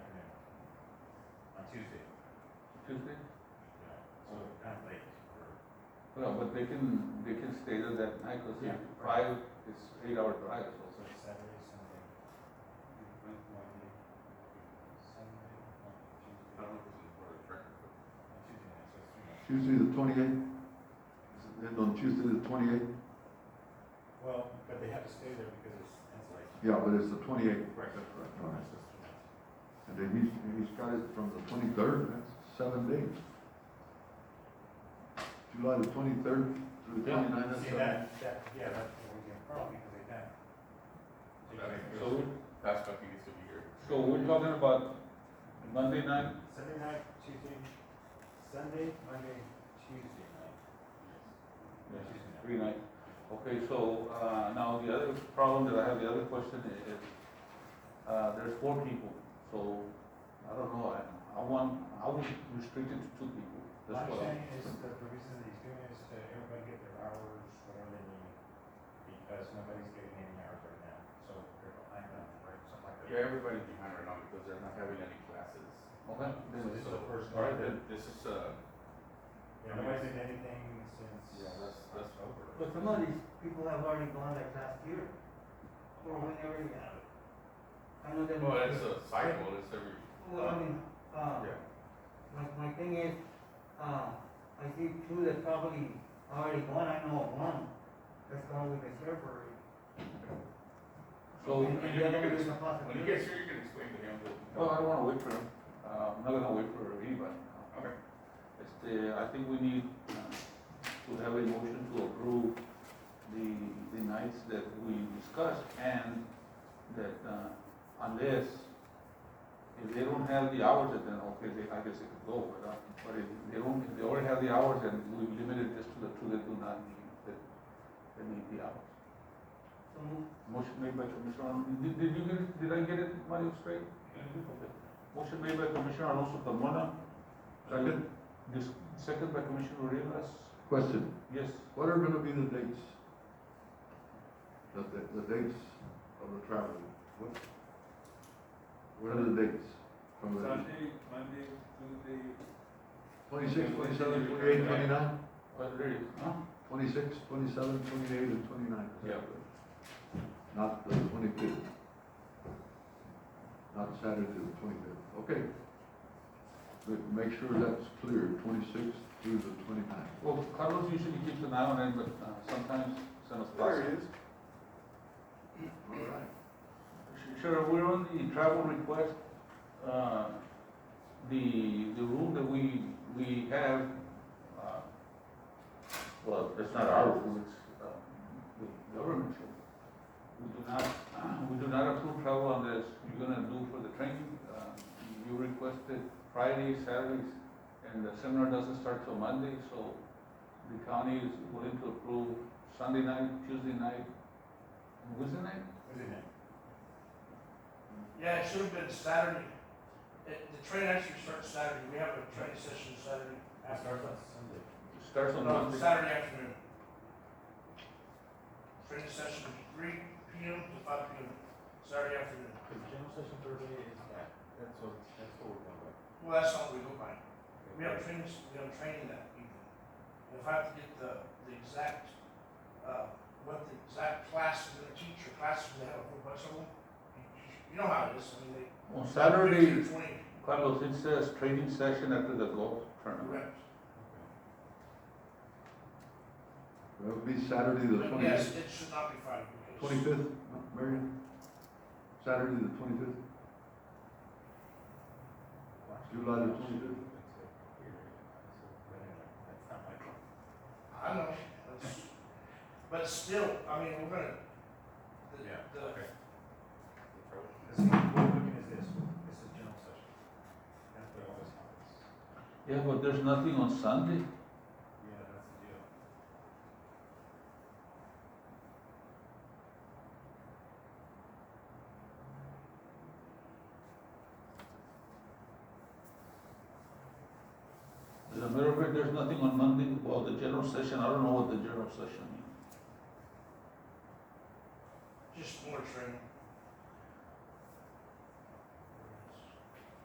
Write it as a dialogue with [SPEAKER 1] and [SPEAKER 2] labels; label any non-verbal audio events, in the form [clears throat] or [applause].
[SPEAKER 1] Tuesday,
[SPEAKER 2] Tuesday?
[SPEAKER 1] yeah, so kind of late for,
[SPEAKER 2] Well, but they can, they can stay there that night, cause
[SPEAKER 1] Yeah.
[SPEAKER 2] it's drive, it's eight hour drive, so.
[SPEAKER 1] so Saturday, Sunday. Monday, Sunday, Monday,
[SPEAKER 3] I
[SPEAKER 1] Tuesday.
[SPEAKER 3] don't know if this is part of the record, but
[SPEAKER 1] Tuesday night, so it's three nights.
[SPEAKER 4] Tuesday the twenty-eighth? End on Tuesday the twenty-eighth?
[SPEAKER 1] Well, but they have to stay there because it's, it's like.
[SPEAKER 4] Yeah, but it's the twenty-eighth,
[SPEAKER 1] Right, that's right.
[SPEAKER 2] Oh,
[SPEAKER 4] All right.
[SPEAKER 1] So it's three nights.
[SPEAKER 4] and then he's, he's got it from the twenty-third, that's seven days. July the twenty-third through the
[SPEAKER 2] Yeah.
[SPEAKER 4] twenty-ninth, that's
[SPEAKER 1] See,
[SPEAKER 4] seven.
[SPEAKER 1] that, that, yeah, that's the weekend problem because they done. They
[SPEAKER 3] That
[SPEAKER 1] done-
[SPEAKER 2] So, we-
[SPEAKER 3] that's what needs to be here.
[SPEAKER 2] so we're talking about Monday night,
[SPEAKER 1] Sunday night, Tuesday, Sunday, Monday, Tuesday night.
[SPEAKER 2] Yes.
[SPEAKER 1] Tuesday night.
[SPEAKER 2] three night. Okay, so, uh, now the other problem that I have, the other question i- is, uh, there's four people, so, I don't know, I, I want, I would restrict it to two people.
[SPEAKER 1] My
[SPEAKER 2] That's what I-
[SPEAKER 1] understanding is that the reason that he's doing is to everybody get their hours, whatever they need, because nobody's getting any hours right now, so they're behind on, right, something like that.
[SPEAKER 3] Yeah, everybody's behind right now because they're not having any classes.
[SPEAKER 2] Okay,
[SPEAKER 1] So
[SPEAKER 2] then,
[SPEAKER 1] this is
[SPEAKER 3] So,
[SPEAKER 1] the first
[SPEAKER 3] All
[SPEAKER 1] one.
[SPEAKER 3] right, then, this is, uh,
[SPEAKER 1] Yeah, nobody's did anything since.
[SPEAKER 3] Yeah, that's- that's-
[SPEAKER 1] over.
[SPEAKER 5] But some of these people have already gone like last year, or whenever you have it. I know that.
[SPEAKER 3] well, it's a cycle, it's every,
[SPEAKER 5] Well, I mean, uh,
[SPEAKER 3] yeah.
[SPEAKER 5] my, my thing is, uh, I see two that probably already gone, I know of one that's gone with the sheriff already.
[SPEAKER 2] so,
[SPEAKER 5] And-
[SPEAKER 3] you-
[SPEAKER 5] And
[SPEAKER 3] you
[SPEAKER 5] the other
[SPEAKER 3] can-
[SPEAKER 5] is a
[SPEAKER 3] When he
[SPEAKER 5] possibility.
[SPEAKER 3] gets here, you can explain to him. what-
[SPEAKER 2] well, I don't wanna wait for him, uh, I'm not gonna wait for anybody.
[SPEAKER 3] Okay.
[SPEAKER 2] Este, I think we need uh, to have a motion to approve the, the nights that we discussed and that uh, unless, if they don't have the hours, then okay, they, I guess they could go, but, uh, but if they don't, if they already have the hours, then we've limited this to the two that do not need, that, that need the hours.
[SPEAKER 5] So move.
[SPEAKER 2] Motion made by Commissioner, Alonso. did, did you get it, did I get it, Mario, straight? Okay. Motion made by Commissioner Alonso Carmona.
[SPEAKER 4] Second.
[SPEAKER 2] This, second by Commissioner Rivas,
[SPEAKER 4] Question,
[SPEAKER 2] yes,
[SPEAKER 4] what are gonna be the dates? The, the, the dates of the traveling, what? What are the dates? From the
[SPEAKER 6] Sunday, Monday, Tuesday,
[SPEAKER 4] twenty-six, twenty-seven, twenty-eight, twenty-nine?
[SPEAKER 2] already, Uh, huh?
[SPEAKER 4] Twenty-six, twenty-seven, twenty-eight, and twenty-nine.
[SPEAKER 2] Yeah.
[SPEAKER 4] Not the twenty-fifth. Not Saturday, the twenty-fifth, okay. Ma- Make sure that's clear, twenty-sixth through the twenty-ninth.
[SPEAKER 2] Well, Carlos usually keeps an eye on it, but uh, sometimes it's not possible.
[SPEAKER 3] is.
[SPEAKER 4] All right.
[SPEAKER 2] Sure, we're on the travel request, uh, the, the room that we, we have, uh, well, it's not our room, it's, uh, the government's room. We do not, we do not [clears throat] approve travel unless you're gonna do for the training, uh, you requested Fridays, Saturdays, and the seminar doesn't start till Monday, so the county is willing to approve Sunday night, Tuesday night, and Wednesday night?
[SPEAKER 1] What's his name?
[SPEAKER 7] Yeah, it should have been Saturday. It, the train actually starts Saturday. We have a train session Saturday
[SPEAKER 1] Starts
[SPEAKER 7] afternoon.
[SPEAKER 1] on Sunday.
[SPEAKER 2] Starts on
[SPEAKER 7] No,
[SPEAKER 2] Monday.
[SPEAKER 7] Saturday afternoon. Train session three P M to five P M, Saturday afternoon.
[SPEAKER 1] Because general session Thursday is that, that's what, that's what we're going with.
[SPEAKER 7] Well, that's not what we go by. We have trainings, we have training that evening. And if I have to get the, the exact, uh, what the exact class is gonna teach or classes they have a whole bunch of them. you- You know how it is. I mean, they.
[SPEAKER 2] On Saturday,
[SPEAKER 7] 15, Twenty,
[SPEAKER 2] Carlos, it says training session after the golf tournament.
[SPEAKER 7] correct.
[SPEAKER 4] That would be Saturday, the
[SPEAKER 7] But yes,
[SPEAKER 4] twenty-fifth,
[SPEAKER 7] it should not be Friday. because-
[SPEAKER 4] twenty-fifth, Marion? Saturday, the twenty-fifth? July the twenty-fifth?
[SPEAKER 1] That's not my problem.
[SPEAKER 7] I know, that's- but still, I mean, we're gonna, the,
[SPEAKER 1] Yeah,
[SPEAKER 7] the,
[SPEAKER 1] okay. This is, what we're looking at this, this is general session. That's what always happens.
[SPEAKER 2] Yeah, but there's nothing on Sunday.
[SPEAKER 1] Yeah, that's the deal.
[SPEAKER 2] As a matter of fact, there's nothing on Monday. Well, the general session, I don't know what the general session